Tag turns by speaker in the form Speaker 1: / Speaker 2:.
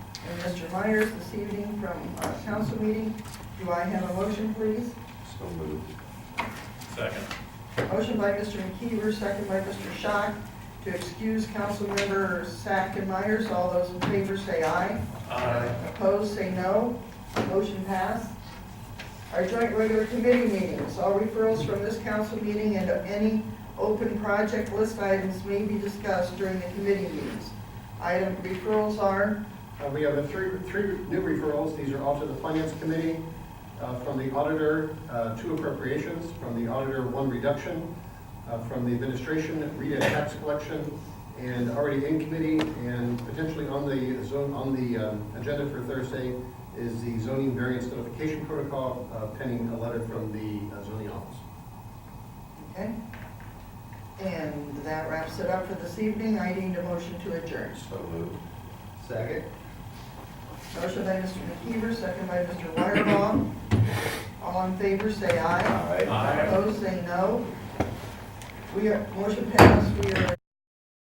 Speaker 1: Mr. Myers this evening from uh, council meeting. Do I have a motion, please?
Speaker 2: So moved.
Speaker 3: Second.
Speaker 1: Motion by Mr. McKeever, second by Mr. Schock, to excuse Councilmember Sack and Myers. All those in favor say aye.
Speaker 3: Aye.
Speaker 1: Opposed, say no. Motion passed. Our joint regular committee meetings, all referrals from this council meeting and any open project list items may be discussed during the committee meetings. Item referrals are,
Speaker 4: Uh, We have a three, three new referrals. These are all to the Finance Committee, uh, from the auditor, uh, two appropriations, from the auditor, one reduction, uh, from the administration, Rita tax collection, and already in committee, and potentially on the zone, on the um, agenda for Thursday is the zoning variance notification protocol uh, pending a letter from the uh, zoning office.
Speaker 1: okay? And that wraps it up for this evening. I need a motion to adjourn.
Speaker 2: So moved.
Speaker 4: Second.
Speaker 1: Motion by Mr. McKeever, second by Mr. Wireball. All in favor, say aye.
Speaker 2: Aye.
Speaker 3: Aye.
Speaker 1: Opposed, say no. We are, motion passed, we are.